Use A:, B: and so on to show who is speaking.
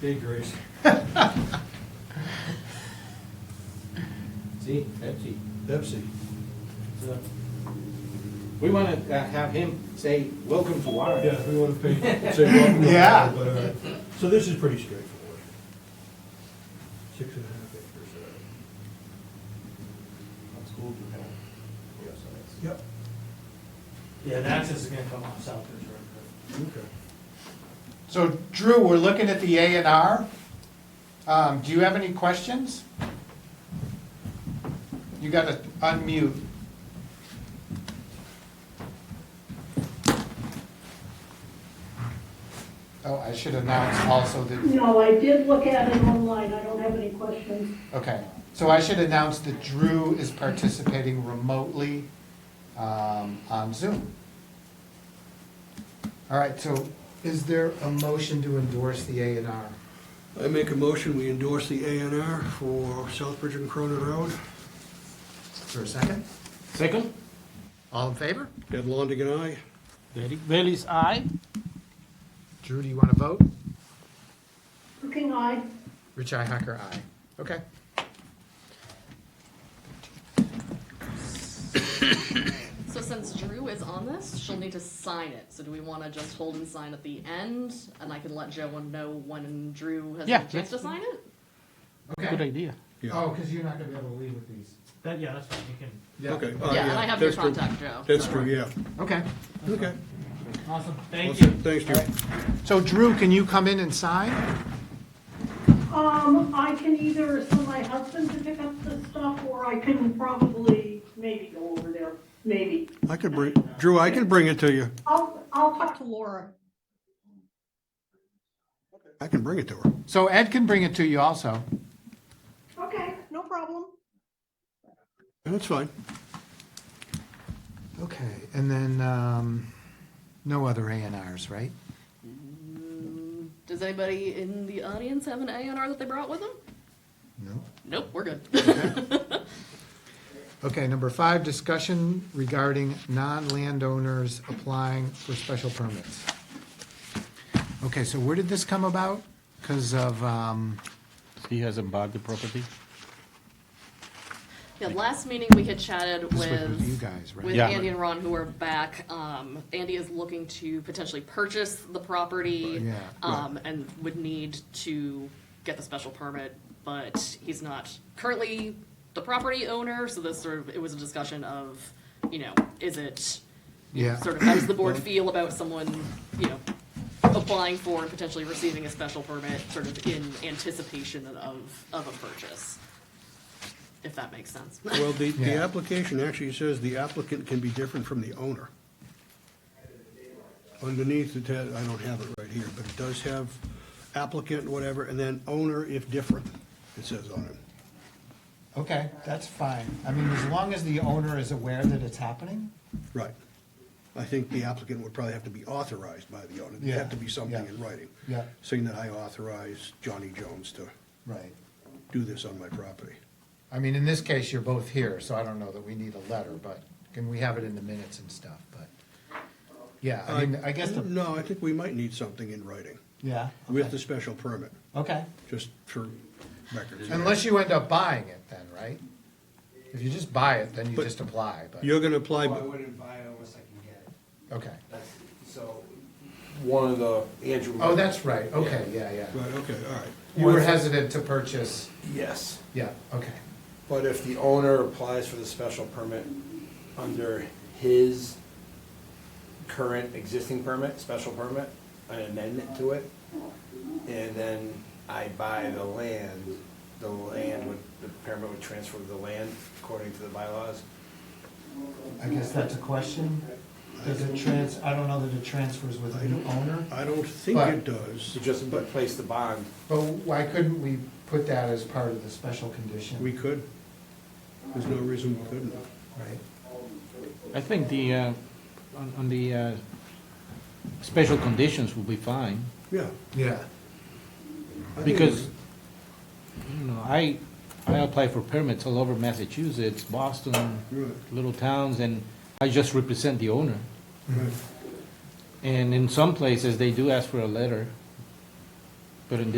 A: day, Grace.
B: See, Pepsi.
A: Pepsi.
B: So, We wanna uh, have him say, welcome to Warren.
A: Yeah, we want to pay, say welcome. to
C: Yeah.
A: Warren, but, all right. So this is pretty straightforward. Six and a half acres. uh, Yep.
D: Yeah, and that's just gonna come off South Ridge Road.
A: Okay.
C: So Drew, we're looking at the A and R. Um, do you have any questions? You gotta unmute. Oh, I should announce also that,
E: No, I did look at it online, I don't have any questions.
C: okay, so I should announce that Drew is participating remotely, um, on Zoom. All right, so is there a motion to endorse the A and R?
A: I make a motion, we endorse the A and R for South Bridge and Cronin Road.
C: For a second?
B: Second?
C: All in favor?
A: Ed Longigan, aye.
B: Derek Bailey's aye.
C: Drew, do you want to vote?
E: Looking eye,
C: Rich Hacker, aye. Okay.
F: So since Drew is on this, she'll need to sign it. So do we want to just hold and sign at the end, and I can let Joan know when Drew has
B: Yeah,
F: had a chance
B: let's-
F: to sign it?
B: Good idea.
C: Oh, because you're not going to be able to leave with these.
D: That, yeah, that's fine, you can,
C: Yeah.
A: Okay.
F: yeah,
A: oh,
F: and I have your
A: that's true.
F: contact, Joe.
A: That's true, yeah.
C: Okay.
A: Okay.
D: awesome, thank you.
A: Awesome. Thanks, Drew.
C: So Drew, can you come in and sign?
E: um, I can either send my husband to pick up the stuff, or I can probably maybe go over there, maybe.
A: I could bring, Drew, I can bring it to you.
E: I'll, I'll talk to Laura.
A: I can bring it to her.
C: So Ed can bring it to you also.
E: Okay, no problem.
A: That's fine.
C: Okay, and then, um, no other A and Rs, right?
F: Does anybody in the audience have an A&R that they brought with them?
C: No.
F: Nope, we're good.
C: Okay, number five, discussion regarding non-landowners applying for special permits. Okay, so where did this come about? Because of, um,
G: He hasn't bought the property?
F: yeah, last meeting we had chatted
C: this was
F: with
C: with you guys, right?
F: with
G: Yeah.
F: Andy and Ron who are back. Um, Andy is looking to potentially purchase the property.
C: Yeah,
F: Um, and would need to get the special permit, but he's not currently the property owner, so this sort of, it was a discussion of, you know, is it
C: Yeah.
F: sort of, how does the board feel about someone, you know, applying for and potentially receiving a special permit, sort of in anticipation of, of a purchase? If that makes sense.
A: Well, the, the
C: Yeah.
A: application actually says the applicant can be different from the owner. Underneath it, has- I don't have it right here, but it does have applicant, whatever, and then owner if different, it says on it.
C: Okay, that's fine. I mean, as long as the owner is aware that it's happening?
A: Right. I think the applicant would probably have to be authorized by the owner. There'd
C: Yeah,
A: have to be something
C: yeah.
A: in writing.
C: Yeah.
A: Saying that I authorize Johnny Jones to
C: Right.
A: do this on my property.
C: I mean, in this case, you're both here, so I don't know that we need a letter, but can we have it in the minutes and stuff, but, yeah, I mean, I guess the,
A: No, I think we might need something in writing
C: Uh, yeah.
A: with the special permit,
C: Okay,
A: just for records.
C: unless you end up buying it then, right? If you just buy it, then you
A: But-
C: just apply, but,
A: You're gonna apply,
H: Well, I
A: but
H: wouldn't buy it unless I can get it.
C: okay.
H: That's, so, one of the, Andrew.
C: Oh, that's right, okay, yeah, yeah.
A: Right, okay, all right.
C: You were hesitant to purchase,
H: Yes,
C: yeah, okay,
H: but if the owner applies for the special permit under his current existing permit, special permit, an amendment to it, and then I buy the land, the land would, the permit would transfer to the land according to the bylaws.
C: I guess that's a question. Does it trans, I don't know that it transfers with a new owner?
A: I don't think
C: But-
A: it does.
H: So just replace the bond.
C: But why couldn't we put that as part of the special condition?
A: We could. There's no reason we couldn't.
C: Right,
G: I think the, uh, on on the uh, special conditions will be fine,
A: Yeah.
C: yeah,
A: I think
G: because,
A: it
G: you know, I, I apply for permits all over Massachusetts, Boston,
A: Right.
G: little towns, and I just represent the owner.
A: was- right.
G: And in some places, they do ask for a letter, but in